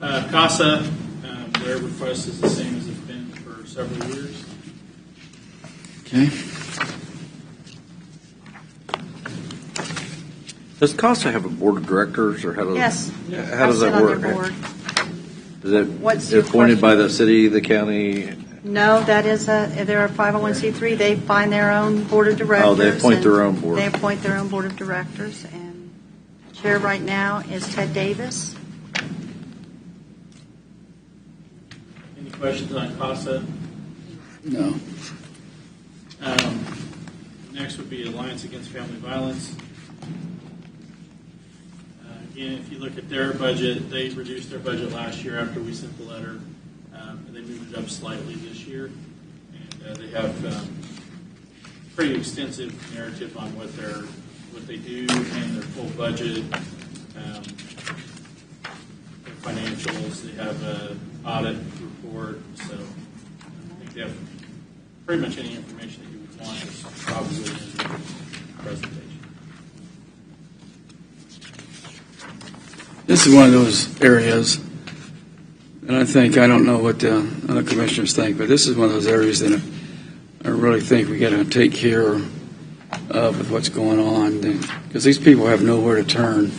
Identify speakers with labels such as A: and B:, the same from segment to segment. A: Uh, CASA, um, their request is the same as it's been for several years.
B: Okay.
C: Does CASA have a board of directors, or how does?
D: Yes.
C: How does
D: I sit
C: that
D: on their
C: work?
D: board.
C: Is it
D: What's your
C: appointed by
D: question?
C: the city, the county?
D: No, that is a, they're a 501c3. They find their own board of directors.
C: Oh, they appoint
D: and
C: their own board.
D: They appoint their own board of directors, and chair right now is Ted Davis.
A: Any questions on CASA?
B: No.
A: Um, Next would be Alliance Against Family Violence. Uh, Again, if you look at their budget, they reduced their budget last year after we sent the letter, um, and they moved it up slightly this year. And uh, they have um, pretty extensive narrative on what their, what they do and their full budget, um, their financials. They have a audit report, so I think they have pretty much any information that you would want is probably in the presentation.
B: This is one of those areas, and I think, I don't know what the other commissioners think, but this is one of those areas that I really think we got to take care of with what's going on, because these people have nowhere to turn.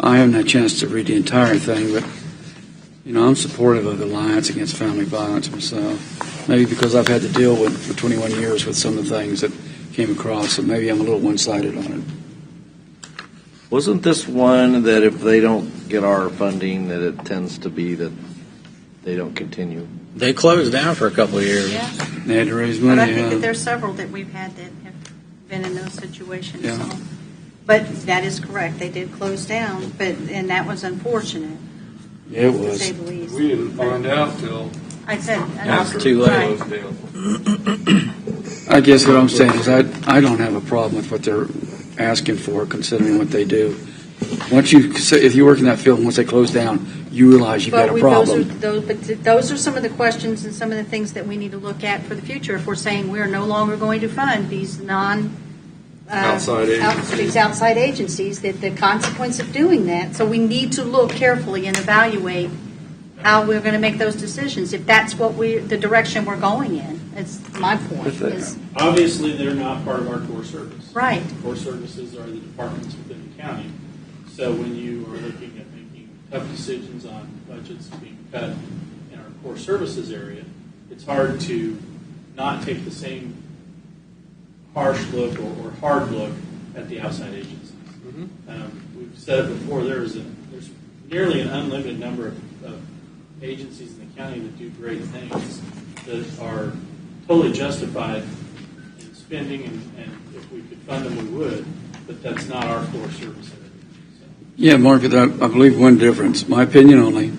B: I haven't had a chance to read the entire thing, but, you know, I'm supportive of the Alliance Against Family Violence myself. Maybe because I've had to deal with, for 21 years, with some of the things that came across, so maybe I'm a little one-sided on it.
C: Wasn't this one that if they don't get our funding, that it tends to be that they don't continue?
E: They closed down for a couple of years.
D: Yeah.
B: They had to raise
D: But
C: Mm-hmm.
B: money.
D: I think
B: uh,
D: that there's several that we've had that have been in those situations.
B: Yeah.
D: so. But that is correct. They did close down, but, and that was unfortunate,
B: Yeah, it
D: to
B: was.
D: say the least.
F: We didn't find out till
D: I said.
E: After too late.
F: those deals.
B: I guess what I'm saying is I, I don't have a problem with what they're asking for, considering what they do. Once you, if you work in that field, once they close down, you realize you've got
D: But
B: a
D: we, those are,
B: problem.
D: those, but th- those are some of the questions and some of the things that we need to look at for the future. If we're saying we're no longer going to fund these non. uh,
F: Outside
D: out-
F: agencies.
D: These outside agencies, that the consequence of doing that, so we need to look carefully and evaluate how we're going to make those decisions, if that's what we, the direction we're going in. That's my point,
C: If they-
D: is,
A: Obviously, they're not part of our core service.
D: right.
A: Core services are the departments within the county. So when you are looking at making tough decisions on budgets being cut in our core services area, it's hard to not take the same harsh look or, or hard look at the outside agencies. Um, we've said it before, there is a, there's nearly an unlimited number of, of agencies in the county that do great things that are totally justified in spending, and, and if we could fund them, we would, but that's not our core service area. So,
B: Yeah, Mark, but I, I believe one difference, my opinion only,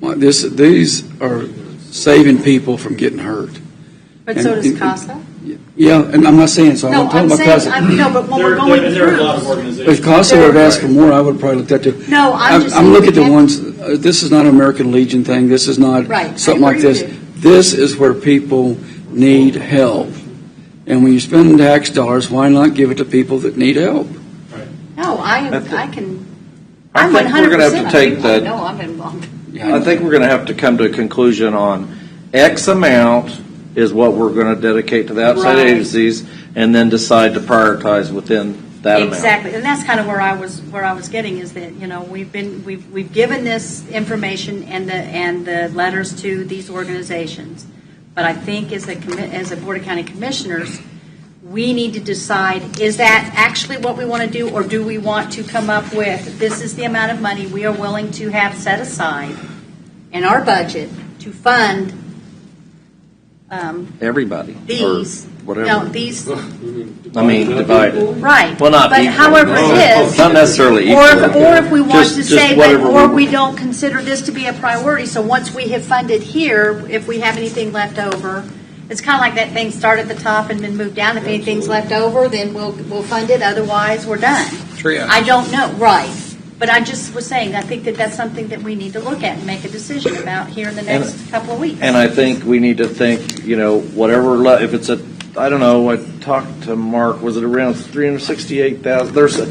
B: my, this, these are saving people from getting hurt.
D: But so
B: And-
D: does
B: and-
D: CASA.
B: Yeah, and I'm not saying, so
D: No,
B: I'm
D: I'm
B: talking about
D: saying,
B: CASA.
D: I'm, no, but when
A: There-
D: we're going
A: there-
D: through.
A: There are a lot of organizations.
B: If CASA would have asked for more, I would have probably looked at it.
D: No, I'm just.
B: I'm looking at the
D: saying-
B: ones, uh, this is not an American Legion thing, this is not
D: Right, I
B: something like
D: agree
B: this.
D: with you.
B: This is where people need help. And when you spend tax dollars, why not give it to people that need help?
D: No, I am,
C: I thi-
D: I can,
C: I
D: I'm
C: think
D: 100%.
C: we're gonna have to take
D: people I
C: that-
D: know I'm involved.
B: Yeah,
C: I think we're going to have to come to a conclusion on X amount is what we're going to dedicate to the outside
D: Right.
C: agencies, and then decide to prioritize within that amount.
D: Exactly, and that's kind of where I was, where I was getting is that, you know, we've been, we've, we've given this information and the, and the letters to these organizations. But I think as a, commi- as a Board of County Commissioners, we need to decide, is that actually what we want to do? Or do we want to come up with, this is the amount of money we are willing to have set aside in our budget to fund, um,
C: Everybody. or
D: these, no,
C: Whatever.
D: these
C: I mean, divided.
D: Right.
C: Well, not
D: But
C: equal.
D: however it is.
C: Not necessarily
D: Or, if-
C: equal.
D: or if we want
C: Just-
D: to
C: just
D: say, but,
C: whatever
D: or
C: we-
D: we don't consider this to be a priority, so once we have funded here, if we have anything left over, it's kind of like that thing, start at the top and then move down, if anything's left over, then we'll, we'll fund it, otherwise, we're done. I don't know, right, but I just was saying, I think that that's something that we need to look at and make a decision about here in the
C: And-
D: next couple of weeks.
C: And I think we need to think, you know, whatever, le- if it's a, I don't know, I talked to Mark, was it around 368,000? There's, a-